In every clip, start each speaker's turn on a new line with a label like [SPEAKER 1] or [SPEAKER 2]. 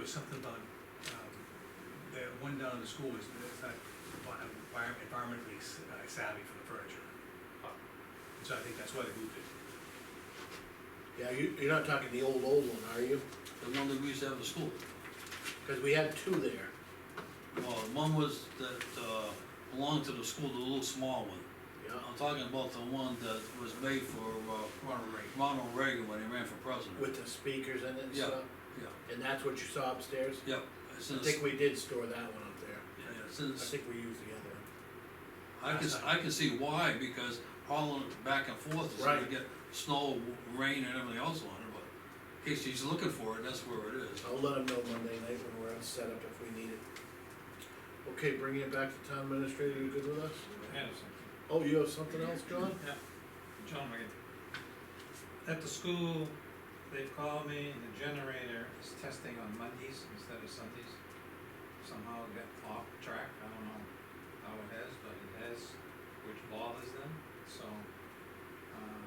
[SPEAKER 1] was something about, um, that one down in the school is, is not envi- environmentally s- uh, savvy for the furniture. So I think that's why they moved it.
[SPEAKER 2] Yeah, you, you're not talking the old, old one, are you?
[SPEAKER 3] the one that we used to have at school.
[SPEAKER 2] Cause we had two there.
[SPEAKER 3] Well, Uh, one was that, uh, belonged to the school, the little small one.
[SPEAKER 2] Yeah,
[SPEAKER 3] I'm talking about the one that was made for, uh,
[SPEAKER 1] Ronald Reagan.
[SPEAKER 3] Ronald Reagan when he ran for president.
[SPEAKER 2] with the speakers in it and
[SPEAKER 3] Yeah,
[SPEAKER 2] stuff,
[SPEAKER 3] Yeah,
[SPEAKER 2] and that's what you saw upstairs?
[SPEAKER 3] yeah, it's in
[SPEAKER 2] I
[SPEAKER 3] the, s-
[SPEAKER 2] think we did store that one up there.
[SPEAKER 3] yeah, it's in the,
[SPEAKER 2] I
[SPEAKER 3] s-
[SPEAKER 2] think we used the other one.
[SPEAKER 3] I can, I can see why, because hauling it back and forth is gonna
[SPEAKER 2] Right.
[SPEAKER 3] get snow, rain and everything else on it, but in case he's looking for it, that's where it is.
[SPEAKER 2] I'll let them know Monday night when we're on setup if we need it. Okay, bringing it back to town administrator, you good with us? Oh, you have something else, John?
[SPEAKER 4] Yeah, John Wigan. At the school, they've called me and the generator is testing on Mondays instead of Sundays. Somehow it got off track, I don't know how it has, but it has, which bothers them, so, um,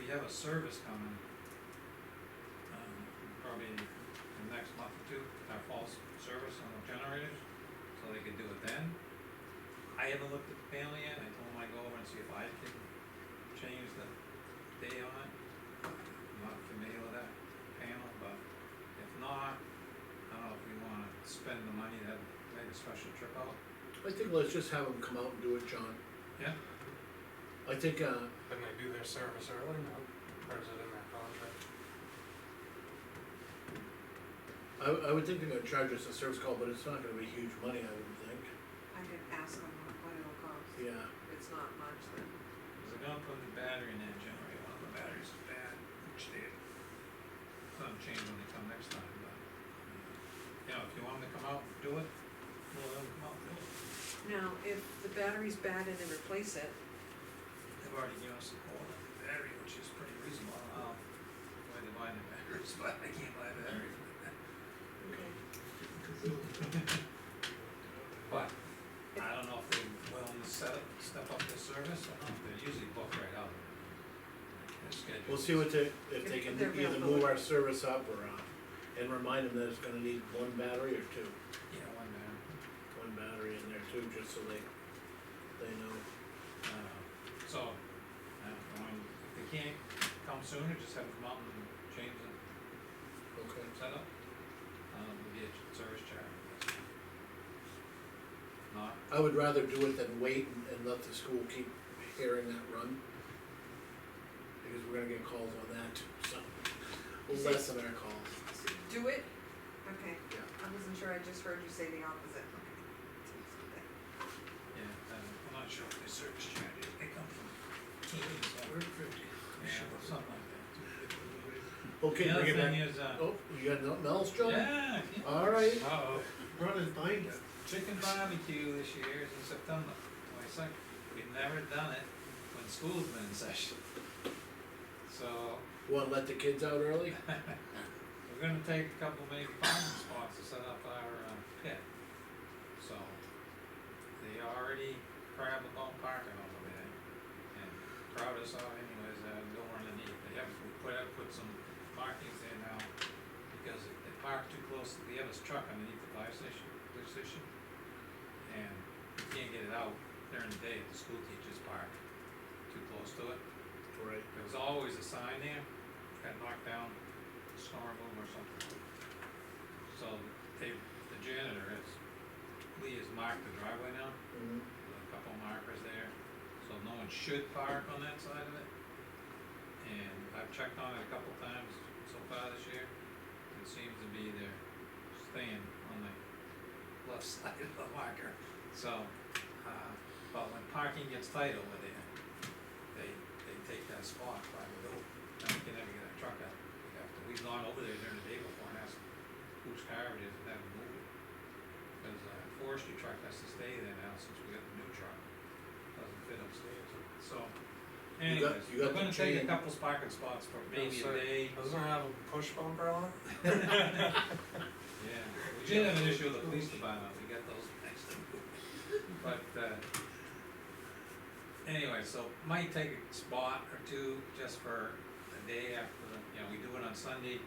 [SPEAKER 4] we have a service coming. Um, probably in the next month or two, our fall s- service on the generators, so they could do it then. I haven't looked at the panel yet, I told him I'd go over and see if I can change the day on it. I'm not familiar with that panel, but if not, I don't know if we wanna spend the money to have, make a special trip out.
[SPEAKER 2] I think let's just have them come out and do it, John.
[SPEAKER 4] Yeah.
[SPEAKER 2] I think, uh,
[SPEAKER 5] Didn't they do their service early, no? Or is it in their contract?
[SPEAKER 2] I, I would think they're gonna charge us a service call, but it's not gonna be huge money, I wouldn't think.
[SPEAKER 6] I can ask them what- what it'll cost,
[SPEAKER 2] Yeah.
[SPEAKER 6] if it's not much, then.
[SPEAKER 4] Cause they're gonna put the battery in that generator, one of the batteries is bad, which they, gonna change when they come next time, but. You know, if you want them to come out and do it, we'll let them come out and do it.
[SPEAKER 6] Now, if the battery's bad and they replace it,
[SPEAKER 4] They've already given us a call on the battery, which is pretty reasonable, I don't know why they're buying the batteries, but they can't buy batteries.
[SPEAKER 6] okay,
[SPEAKER 4] But, I don't know if they willing to set up, step up their service, or not, they're usually booked right out. Their schedule
[SPEAKER 2] We'll see what they, if they can
[SPEAKER 6] If they're
[SPEAKER 2] either move
[SPEAKER 6] available.
[SPEAKER 2] our service up or, uh, and remind them that it's gonna need one battery or two.
[SPEAKER 4] is- Yeah, one man,
[SPEAKER 2] One battery in there too, just so they, they know.
[SPEAKER 4] uh, so, I don't know, and if they can't come sooner, just have them come out and change the
[SPEAKER 2] Okay.
[SPEAKER 4] setup. Um, maybe a service charge, I guess. Not,
[SPEAKER 2] I would rather do it than wait and, and let the school keep hearing that run. Because we're gonna get calls on that too, so,
[SPEAKER 6] Is
[SPEAKER 2] we'll
[SPEAKER 6] it-
[SPEAKER 2] lessen our calls.
[SPEAKER 6] so do it, okay,
[SPEAKER 2] Yeah.
[SPEAKER 6] I wasn't sure, I just heard you say the opposite, okay.
[SPEAKER 4] yeah, um, I'm not sure if their service charge, is. they come from teams, or, yeah, something like that.
[SPEAKER 2] Okay,
[SPEAKER 4] The other
[SPEAKER 2] bring it
[SPEAKER 4] thing
[SPEAKER 2] back.
[SPEAKER 4] is, uh,
[SPEAKER 2] Oh, you got nothing else, John?
[SPEAKER 4] yeah,
[SPEAKER 2] Alright,
[SPEAKER 4] uh-oh,
[SPEAKER 5] Run his binder.
[SPEAKER 4] chicken barbecue this year is in September, twenty-second, we've never done it when school's been in session. So,
[SPEAKER 2] wanna let the kids out early?
[SPEAKER 4] We're gonna take a couple maybe parking spots to set up our uh, pit. So, they already crab about parking over there. And crowd us out anyways, uh, door underneath, they have, we put up, put some markings there now. Because if they park too close to the other's truck underneath the fire station, police station. And you can't get it out during the day, if the school teachers park too close to it.
[SPEAKER 2] Right.
[SPEAKER 4] There was always a sign there, got knocked down, snow removal or something. So they, the janitor has, Lee has marked the driveway now,
[SPEAKER 5] Mm-hmm.
[SPEAKER 2] Mhm.
[SPEAKER 4] with a couple markers there, so no one should park on that side of it. And I've checked on it a couple times so far this year, it seems to be they're staying on the left side of the marker. So, uh, but when parking gets tight over there, they, they take that spot by the door, and we can never get a truck out. We have to, we've gone over there during the day before and asked whose car it is and had them move it. Cause uh, forestry truck has to stay there now since we got the new truck, doesn't fit upstairs,
[SPEAKER 2] You
[SPEAKER 4] so.
[SPEAKER 2] got-
[SPEAKER 4] Anyways,
[SPEAKER 2] you got
[SPEAKER 4] we're
[SPEAKER 2] the
[SPEAKER 4] gonna
[SPEAKER 2] chain.
[SPEAKER 4] take a couple parking spots for maybe a
[SPEAKER 5] sir.
[SPEAKER 4] day.
[SPEAKER 5] Doesn't it have a push bumper on it?
[SPEAKER 4] Yeah, we did have an issue with the police department, we got those next time. But, uh, anyway, so might take a spot or two just for a day after, the- you know, we do it on Sunday,